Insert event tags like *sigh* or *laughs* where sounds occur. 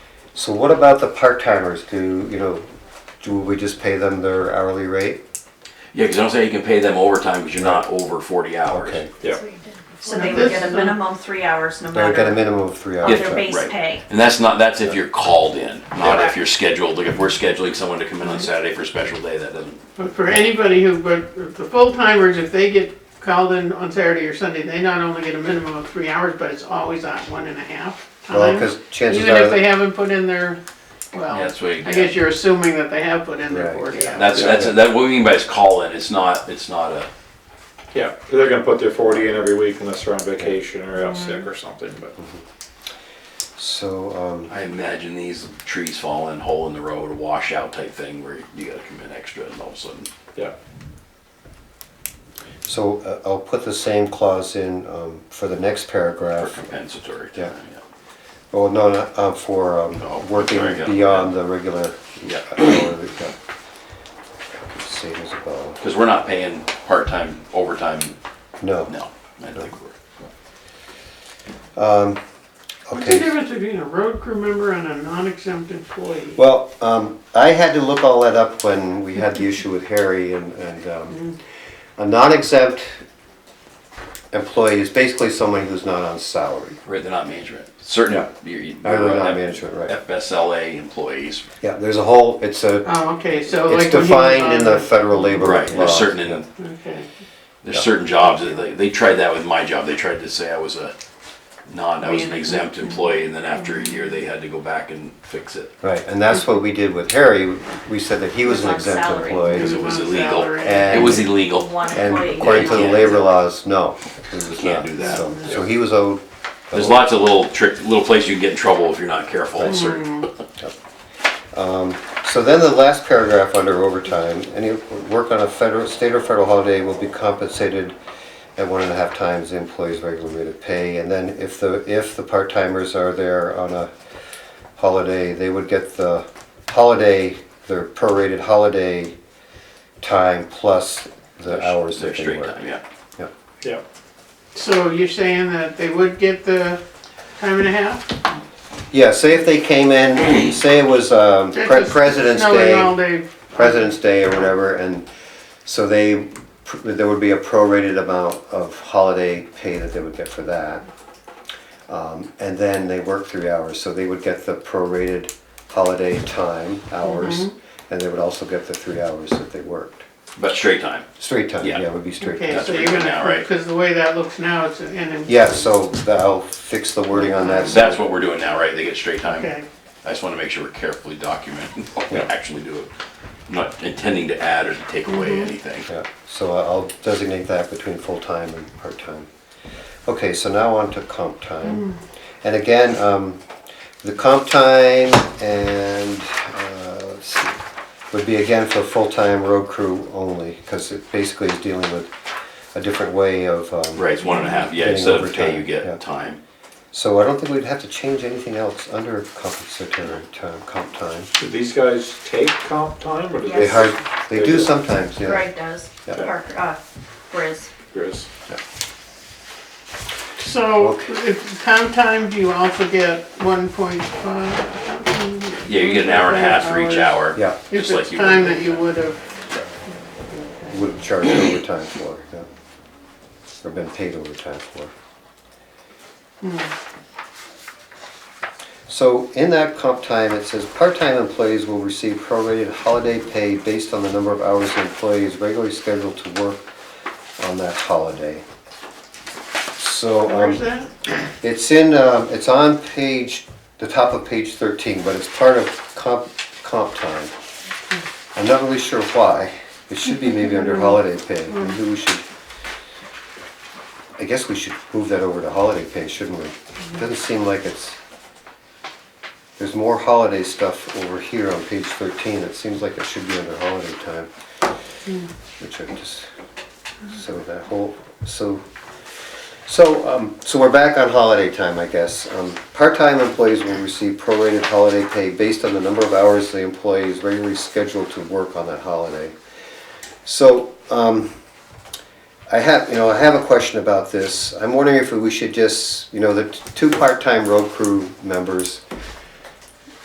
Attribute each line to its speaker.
Speaker 1: So what about the part-timers? Do, you know, do we just pay them their hourly rate?
Speaker 2: Yeah, because I don't say you can pay them overtime because you're not over forty hours.
Speaker 1: Okay.
Speaker 3: Yeah.
Speaker 4: So they would get a minimum three hours no
Speaker 1: They would get a
Speaker 4: matter
Speaker 1: minimum of three
Speaker 4: of
Speaker 1: hours.
Speaker 4: their base
Speaker 2: right.
Speaker 4: pay.
Speaker 2: And that's not, that's if you're called in, not
Speaker 4: Yeah.
Speaker 2: if you're scheduled. Like if we're scheduling someone to come in on Saturday for a special day, that doesn't.
Speaker 5: But for anybody who, but the full timers, if they get called in on Saturday or Sunday, they not only get a minimum of three hours, but it's always at one and a half
Speaker 1: Well,
Speaker 5: times.
Speaker 1: because chances
Speaker 5: Even if they
Speaker 1: are,
Speaker 5: haven't put in their,
Speaker 2: Yeah,
Speaker 5: well,
Speaker 2: that's what you
Speaker 5: I
Speaker 2: get.
Speaker 5: guess you're assuming that they have put in their
Speaker 1: Right.
Speaker 5: forty hours.
Speaker 2: That's, that's, that, what we mean by is call in. It's not, it's not a,
Speaker 3: Yeah, 'cause they're gonna put their forty in every week unless they're on vacation or out sick or something, but.
Speaker 1: so, um,
Speaker 2: I imagine these trees falling, hole in the road, a washout type thing where you gotta come in extra and all of a sudden.
Speaker 3: Yeah,
Speaker 1: so uh, I'll put the same clause in, um, for the next
Speaker 2: For
Speaker 1: paragraph.
Speaker 2: compensatory
Speaker 1: Yeah.
Speaker 2: time, yeah.
Speaker 1: Well, no, no, uh, for,
Speaker 2: No,
Speaker 1: um, working
Speaker 2: there you go.
Speaker 1: beyond the regular
Speaker 2: Yeah,
Speaker 1: hour we've got. Same as well.
Speaker 2: because we're not paying part-time, overtime,
Speaker 1: No.
Speaker 2: no. I don't think we're,
Speaker 5: What's the
Speaker 1: Okay.
Speaker 5: difference between a road crew member and a non-exempt employee?
Speaker 1: Well, um, I had to look all that up when we had the issue with Harry and, and, um, a non-exempt employee is basically someone who's not on salary.
Speaker 2: right, they're not management. Certain,
Speaker 1: Yeah.
Speaker 2: you're, you're.
Speaker 1: Or they're not management, right.
Speaker 2: FSLA employees,
Speaker 1: Yeah, there's a whole, it's a,
Speaker 5: Oh, okay, so like.
Speaker 1: it's
Speaker 5: when he was
Speaker 1: defined in
Speaker 5: on
Speaker 1: the federal labor law.
Speaker 2: right, there's certain,
Speaker 5: Okay,
Speaker 2: there's certain jobs, that they, they tried that with my job, they tried to say I was a non, I was an
Speaker 5: Management.
Speaker 2: exempt employee, and then after a year, they had to go back and fix it.
Speaker 1: Right, and that's what we did with Harry. We said that he was an
Speaker 4: On
Speaker 1: exempt
Speaker 4: salary.
Speaker 2: Because
Speaker 1: employee.
Speaker 2: it was
Speaker 5: On
Speaker 2: illegal,
Speaker 5: salary.
Speaker 2: it was illegal.
Speaker 4: One
Speaker 1: And
Speaker 4: employee.
Speaker 1: according to the
Speaker 2: Yeah.
Speaker 1: labor laws, no. he was
Speaker 2: Can't
Speaker 1: not.
Speaker 2: do that.
Speaker 1: So- So he was owed.
Speaker 2: There's lots of little trick, little places you can get in trouble if you're not careful. Certain.
Speaker 1: So then the last paragraph under overtime, any work on a federal, state or federal holiday will be compensated at one and a half times the employee's regular rate of pay. And then if the, if the part-timers are there on a holiday, they would get the holiday, their prorated holiday time plus the hours
Speaker 2: They're
Speaker 1: that they
Speaker 2: straight
Speaker 1: work.
Speaker 2: time, yeah.
Speaker 1: Yeah.
Speaker 3: yeah.
Speaker 5: so you're saying that they would get the time and a half?
Speaker 1: Yeah, say if they came in, say it was um,
Speaker 5: It's
Speaker 1: Pre-
Speaker 5: just
Speaker 1: President's
Speaker 5: snowing
Speaker 1: Day.
Speaker 5: all day.
Speaker 1: President's Day or whatever, and so they, there would be a prorated amount of holiday pay that they would get for that. Um, And then they work three hours, so they would get the prorated holiday time, hours, and they would also get the three hours that they worked.
Speaker 2: But straight time.
Speaker 1: Straight time,
Speaker 2: Yeah.
Speaker 1: yeah, it would be straight
Speaker 5: Okay,
Speaker 1: time.
Speaker 2: That's
Speaker 5: so
Speaker 2: what
Speaker 5: you're
Speaker 2: you're now,
Speaker 5: gonna,
Speaker 2: right?
Speaker 5: because the way that looks now, it's an. an-
Speaker 1: Yeah, so tha- I'll fix the wording on that.
Speaker 2: That's what we're doing now, right? They get straight time.
Speaker 5: Okay,
Speaker 2: I just want to make sure we're carefully documenting *laughs* what we
Speaker 1: Yeah.
Speaker 2: actually do. I'm not intending to add or to take away anything.
Speaker 1: Yeah, so I- I'll designate that between full-time and part-time. Okay, so now on to comp time. And again, um, the comp time and, uh, let's see, would be again for full-time road crew only, because it basically is dealing with a different way of, um,
Speaker 2: Right, it's one and a half. Yeah,
Speaker 1: Getting
Speaker 2: instead of pay,
Speaker 1: overtime,
Speaker 2: you get
Speaker 1: yeah.
Speaker 2: time.
Speaker 1: so I don't think we'd have to change anything else under compensatory time, comp time.
Speaker 3: Do these guys take comp time or do
Speaker 1: They
Speaker 3: they?
Speaker 4: Yes.
Speaker 1: hard, they
Speaker 3: They
Speaker 1: do
Speaker 3: do.
Speaker 1: sometimes, yeah.
Speaker 4: Greg does,
Speaker 1: Yeah.
Speaker 4: Parker, uh, Riz.
Speaker 3: Chris?
Speaker 5: so
Speaker 1: Okay.
Speaker 5: if comp time, do you also get one point five?
Speaker 2: Yeah, you get an hour and a half for each hour.
Speaker 1: Yeah.
Speaker 5: If
Speaker 2: just like
Speaker 5: it's
Speaker 2: you
Speaker 5: time
Speaker 2: would.
Speaker 5: that you would have,
Speaker 1: would have charged overtime for, yeah. Or been paid overtime for. So in that comp time, it says, part-time employees will receive prorated holiday pay based on the number of hours the employee is regularly scheduled to work on that holiday. So,
Speaker 5: where's
Speaker 1: um,
Speaker 5: that?
Speaker 1: it's in, um, it's on page, the top of page thirteen, but it's part of comp, comp time. I'm not really sure why. It should be maybe under holiday pay. Maybe we should, I guess we should move that over to holiday pay, shouldn't we? Doesn't seem like it's, there's more holiday stuff over here on page 13. It seems like it should be under holiday time. Which I just, so that whole, so, so, um, so we're back on holiday time, I guess. Um, Part-time employees will receive prorated holiday pay based on the number of hours the employee is regularly scheduled to work on that holiday. So, um, I have, you know, I have a question about this. I'm wondering if we should just, you know, the t- two part-time road crew members